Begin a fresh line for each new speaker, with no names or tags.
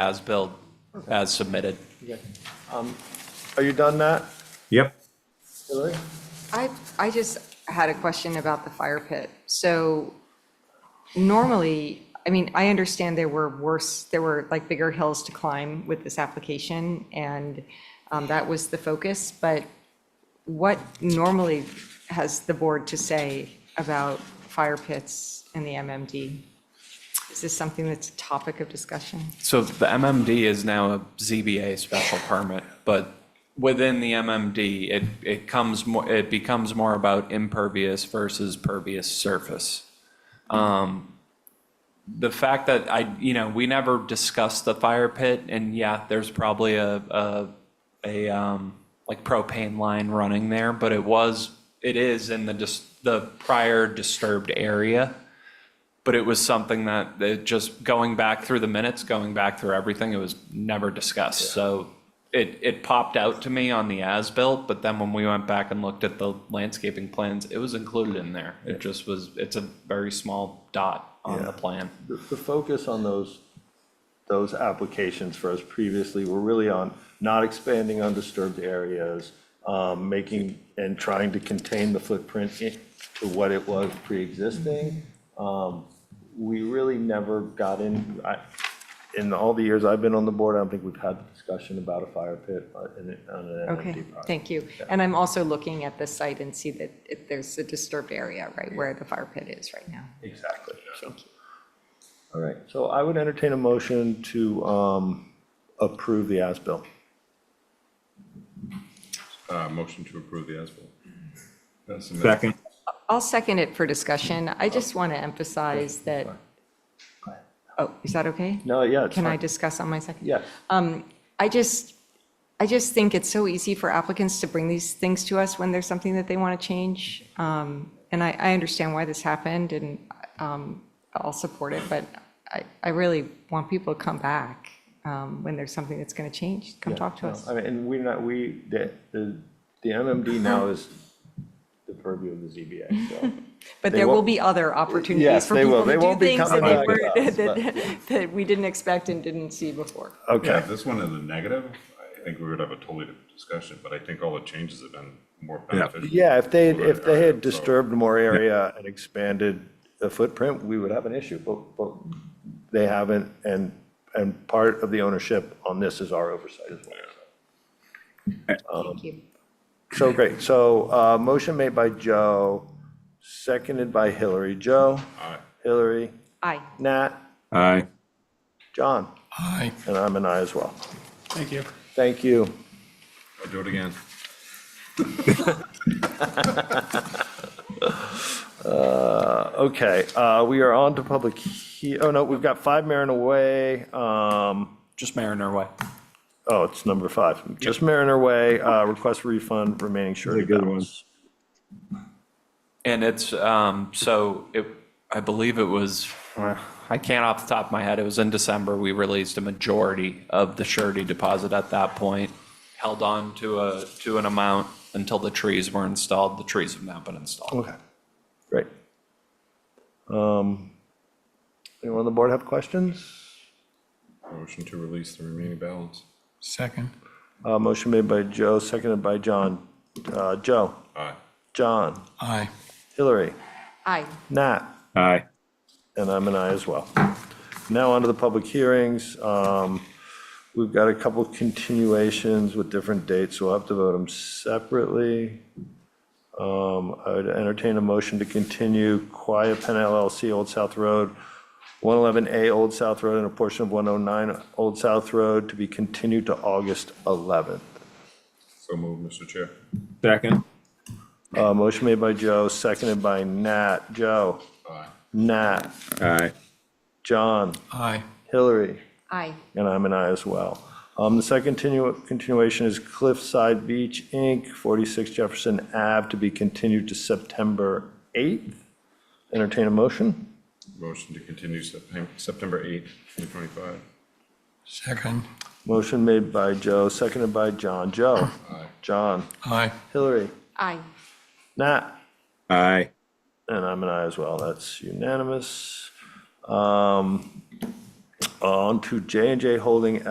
as built, as submitted.
Okay. Um, Are you done, Matt?
Yep.
Hillary?
I, I just had a question about the fire pit. So normally, I mean, I understand there were worse, there were like bigger hills to climb with this application, and um, that was the focus, but what normally has the board to say about fire pits and the MMD? Is this something that's a topic of discussion?
So the MMD is now a ZBA special permit, but within the MMD, it, it comes more, it becomes more about impervious versus pervious surface. Um, the fact that I, you know, we never discussed the fire pit, and yeah, there's probably a, a, a, um, like propane line running there, but it was, it is in the dis, the prior disturbed area. But it was something that, it just going back through the minutes, going back through everything, it was never discussed, so it, it popped out to me on the as-built, but then when we went back and looked at the landscaping plans, it was included in there. It just was, it's a very small dot on the
Yeah.
plan.
The, the focus on those, those applications for us previously were really on not expanding undisturbed areas, um, making, and trying to contain the footprint i- to what it was pre-existing. Um, We really never got in, I, in all the years I've been on the board, I don't think we've had the discussion about a fire pit uh, in, it- on an
Okay,
empty project.
thank you. And I'm also looking at the site and see that it- there's a disturbed area, right, where the fire pit is right now.
Exactly. All right, so I would entertain a motion to um, approve the as-built.
Uh, motion to approve the as-built. That's the minute.
Second.
I'll second it for discussion. I just want to emphasize that, oh, is that okay?
No, yeah, it's
Can I
fine.
discuss on my second?
Yes,
I just, I just think it's so easy for applicants to bring these things to us when there's something that they want to change. Um, And I, I understand why this happened, and um, I'll support it, but I, I really want people to come back um, when there's something that's going to change, come talk to
No,
us.
I mean, and we're not, we, the, the the MMD now is the purview of the ZBA, so.
But
They
there will
won't-
be other opportunities
Yes,
for
they will.
people
They
to do
won't be
things that
coming
they
back
were,
to us, but,
that, that we didn't expect and didn't see before.
Yeah,
Okay,
if this one in the negative, I think we would have a totally different discussion, but I think all the changes have been more beneficial.
yeah, if they, if they had
So-
disturbed more area and expanded the footprint, we would have an issue, but, but they haven't, and, and part of the ownership on this is our oversight as well.
Thank you.
So great, so uh, motion made by Joe, seconded by Hillary. Joe?
Aye.
Hillary?
Aye.
Nat?
Aye.
John?
Aye.
And I'm an aye as well.
Thank you.
Thank you.
I'll do it again.
Okay, uh, we are on to public, he- oh no, we've got five Mariner Way. um,
Just Mariner Way.
Oh, it's number five. Just Mariner Way, uh, request refund remaining surety
good one.
balance.
And it's, um, so it, I believe it was, uh, I can't off the top of my head, it was in December, we released a majority of the surety deposit at that point, held on to a, to an amount until the trees were installed. The trees have now been installed.
Okay, great. Um, Anyone on the board have questions?
Motion to release the remaining balance.
Second.
Uh, Motion made by Joe, seconded by John. Uh, Joe?
Aye.
John?
Aye.
Hillary?
Aye.
Nat?
Aye.
And I'm an aye as well. Now on to the public hearings. Um, We've got a couple continuations with different dates, so we'll have to vote them separately. Um, I would entertain a motion to continue Quiet Pen LLC, Old South Road, 111A Old South Road, and a portion of 109 Old South Road to be continued to August 11th.
So moved, Mr. Chair.
Second.
Uh, Motion made by Joe, seconded by Nat. Joe?
Aye.
Nat?
Aye.
John?
Aye.
Hillary?
Aye.
And I'm an aye as well. Um, The second continu- continuation is Cliffside Beach, Inc., 46 Jefferson Ave, to be continued to September 8th. Entertain a motion?
Motion to continue Septem- September 8th, 2025.
Second.
Motion made by Joe, seconded by John. Joe?
Aye.
John?
Aye.
Hillary?
Aye.
Nat?
Aye.
And I'm an aye as well. That's unanimous. Um, on to j and J Holding